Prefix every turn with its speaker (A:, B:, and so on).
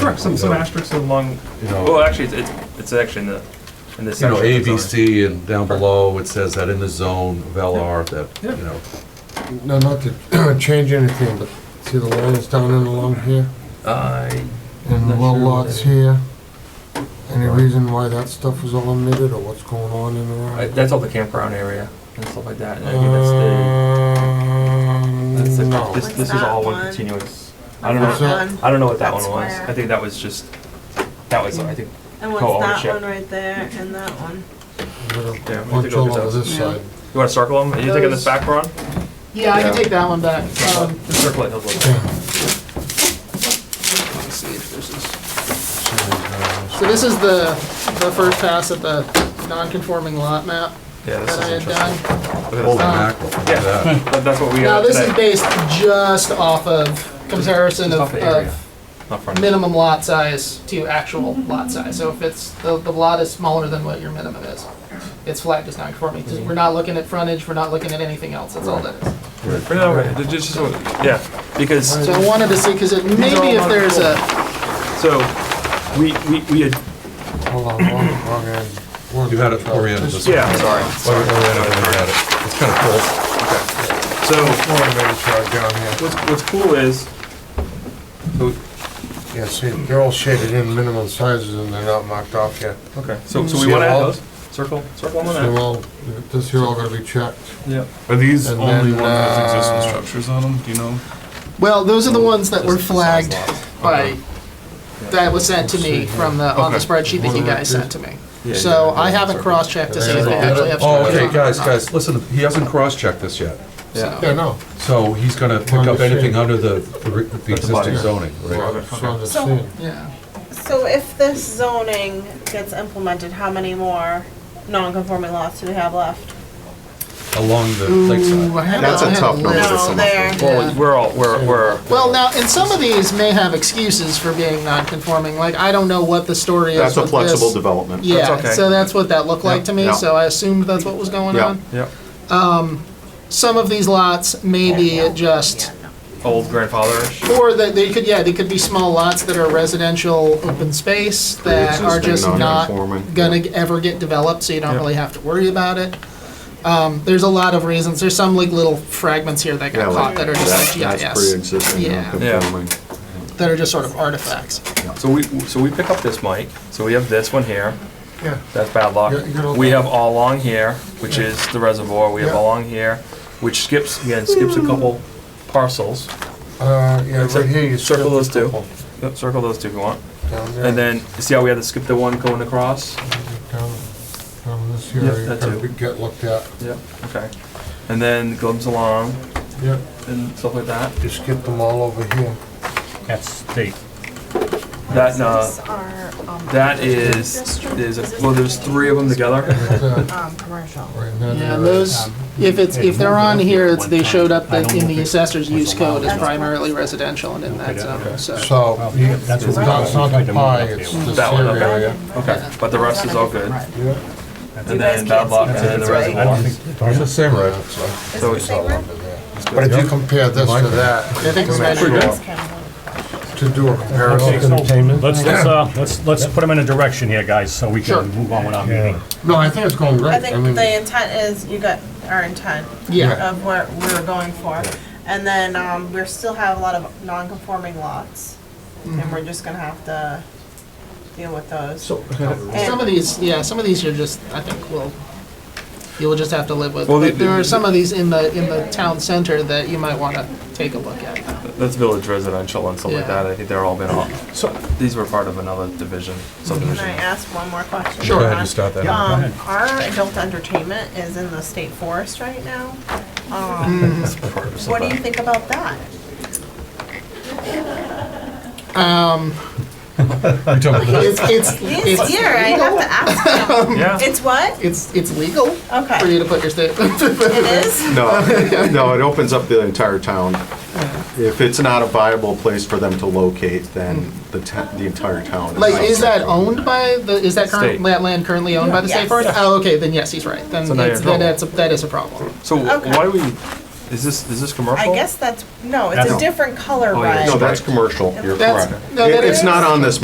A: Sure, some, some asterisks along,
B: You know-
A: well, actually, it's, it's- it's actually in the, in the
B: You
A: section.
B: know, A,
A: that's on
B: B,
A: it.
B: C, and down below, it says that in the zone of LR, that,
A: Yeah.
B: you know,
C: No, not to change anything, but see the lines down and along here,
A: I,
C: and the
A: Not
C: well
A: sure what
C: lots
A: that-
C: here. Any
B: Right.
C: reason why that stuff was all omitted, or what's going on in
A: I-
C: there?
A: that's all the campground area and stuff like that, and I think that's the,
B: Uh,
A: that's the,
C: Um, No.
A: this,
D: What's
A: this is
D: that
A: all one
D: one?
A: continuous. I don't know,
C: What's that?
A: I don't know what that one
D: That
A: was,
D: square.
A: I think that was just, that was, I think,
D: And what's
A: Co-ownership.
D: that one right there and that one?
A: Yeah, we
C: Bunch
A: took all
C: all over
A: this
C: this
E: Yeah.
C: side.
A: you wanna circle them, are you taking this
E: Those-
A: back, Ron?
E: Yeah, I can
A: Yeah.
E: take that one back. Um,
A: Just circle it, those little-
E: So this is the, the first pass at the non-conforming lot map
A: yeah, this
E: that I
A: is
E: had
A: interesting.
E: done.
A: Look at
B: holy
A: this.
B: mackerel, look at that.
A: That- That's what we got
E: Now, this is
A: today.
E: based just off of comparison
A: Just off
E: of,
A: the area,
E: of
A: not front.
E: minimum lot size to actual lot size. So if it's, the, the lot is smaller than what your minimum is, it's flagged as non-conforming. 'Cause We're not looking at frontage, we're not looking at anything else, that's all that is.
A: Bring it over, Just- just- just- yeah, because
E: So I wanted to see, because it, maybe if there's a,
A: So, we, we, we had,
C: Hold on, wrong, wrong end. One,
B: You had it oriented this way.
A: yeah, I'm sorry.
B: Or- or whatever they had it. It's kind of cool.
A: So,
C: Automated shot down here.
A: what's, what's cool is, so-
C: Yeah, see, they're all shaded in minimum sizes and they're not marked off yet.
A: okay, so, so
C: See
A: we wanna
C: how-
A: add those, circle, circle them
C: So
A: on that.
C: all, this here all gonna be checked.
A: Yeah.
F: Are these
C: And
F: only ones with
C: then, uh,
F: existing structures on them? Do you know?
E: well, those are the ones that were
A: Just the size
E: flagged
A: lots.
E: by, that was sent to me from the, on the
F: Okay.
E: spreadsheet that you guys sent to me. So I haven't cross-checked to see if they actually have.
B: Oh,
E: structures on
B: okay,
E: it or
B: guys,
E: not.
B: guys, listen, he hasn't cross-checked this yet.
A: Yeah.
C: Yeah, no.
B: So he's gonna pick up anything under the, the re- the existing zoning, right?
C: Well, so I'm just
D: So-
C: saying.
E: Yeah,
D: So if this zoning gets implemented, how many more non-conforming lots do we have left?
B: Along the
E: Ooh, I
B: lakeside.
E: haven't-
G: That's a
E: I haven't
G: tough number
E: looked.
G: to
D: No,
G: some of
D: there.
A: Well, we're all, we're, we're,
E: Well, now, and some of these may have excuses for being non-conforming, like, I don't know what the story is
G: That's a
E: with
G: flexible
E: this.
G: development.
A: That's
E: Yeah,
A: okay.
E: so that's what that looked like to me,
G: Yeah.
E: so I assumed that's what was going
G: Yeah.
E: on.
A: yeah,
E: Some of these lots may be at just,
A: old grandfatherish.
E: or that they could, yeah, they could be small lots that are residential open space that are
G: Pre-existing
E: just not
G: non-conforming,
E: gonna
G: yeah.
E: g- ever get developed, so you don't
A: Yeah.
E: really have to worry about it. Um, there's a lot of reasons, there's some like little fragments here that
G: Yeah,
E: got
G: like
E: caught that are just
G: that-
E: like
G: That's
E: GIS,
G: pre-existing,
E: Yeah.
G: non-conforming.
E: that are just sort of artifacts.
A: So we, so we pick up this mic, so we have this one here,
C: Yeah.
A: that's bad luck.
C: Yeah, you got all
A: We
C: that.
A: have all along here, which is the reservoir, we have
C: Yeah.
A: all along here, which skips, again, skips a couple parcels.
C: Uh, yeah, right here, you.
A: Circle
C: skip
A: those
C: a
A: two.
C: couple
A: Yep, Circle those two if you want.
C: Down there.
A: And then, see how we had to skip the one going across?
C: Down, down this
A: Yeah,
C: here, you
A: that
C: gotta
A: too.
C: be- get looked at.
A: Yep. Okay. And then glimpse along
C: Yeah,
A: and stuff like that.
C: you skip them all over here.
H: That's state.
A: That, uh,
D: um,
A: that is, there's, a- well, there's three of them together.
C: Right there,
D: Um, commercial.
C: right in that
E: Yeah,
C: area.
E: and those,
H: um,
E: if it's, if they're on here, it's, they showed up that in the assessor's use code as primarily residential and in that zone, so.
C: So, you- it's
H: That's what we
C: not, it's not
H: tried
C: the
H: to
C: pie,
H: move up
C: it's
H: there.
C: this
A: That one,
C: here
A: okay.
C: area.
A: Okay, but the rest is all good.
C: Yeah.
A: And then bad luck, and then the
H: I
A: reservoir.
H: don't think,
B: It's the same, right?
A: So it's
C: But if you compare this to that,
E: I think it's
C: sure, to do a comparison.
H: let's, let's, uh, let's, let's put them in a direction here, guys, so we
E: Sure.
H: can move on with our meeting.
C: No, I think it's going
D: I
C: great, I
D: think
C: mean,
D: the intent is, you got our intent
E: Yeah,
D: of what we're going for. And then, um, we still have a lot of non-conforming lots,
A: Mm-hmm.
D: and we're just gonna have to deal with those. And-
E: some of these, yeah, some of these are just, I think will, you'll just have to live with.
A: Well, the-
E: But there are some of these in the, in the town center that you might wanna take a look at.
A: That's village residential and stuff like
E: Yeah.
A: that. I think they're all been all, so these were part of another division,
D: Can I
A: subdivision.
D: ask one more question?
B: Go ahead, you start that.
D: Um, our adult entertainment is in the state forest right now. Um,
A: Mm.
D: What do you think about that?
B: You're talking about-
E: It's, it's,
D: This
E: it's,
D: year, I have to ask them.
A: Yeah,
D: It's what?
E: it's, it's legal for you
D: Okay,
E: to put your state,
D: it is?
G: No, no, it opens up the entire town. If it's not a viable place for them to locate, then the, ta- the entire town.
E: like,
G: not
E: is that
G: acceptable.
E: owned by the, is that
A: State.
E: current, that land currently owned by the state
D: Yes.
E: forest? Oh, okay, then yes, he's right, then
A: So now you're
E: it's,
A: in trouble.
E: then that's, a- that is a problem.
A: so
D: Okay.
A: why do we, is this, is this
D: I
A: commercial?
D: guess that's, no, it's a
G: That's-
D: different color
A: Oh, yeah.
D: ride.
G: No, that's commercial, you're
E: That's-
G: correct.
E: no, that
G: It- It's
E: is-
G: not on this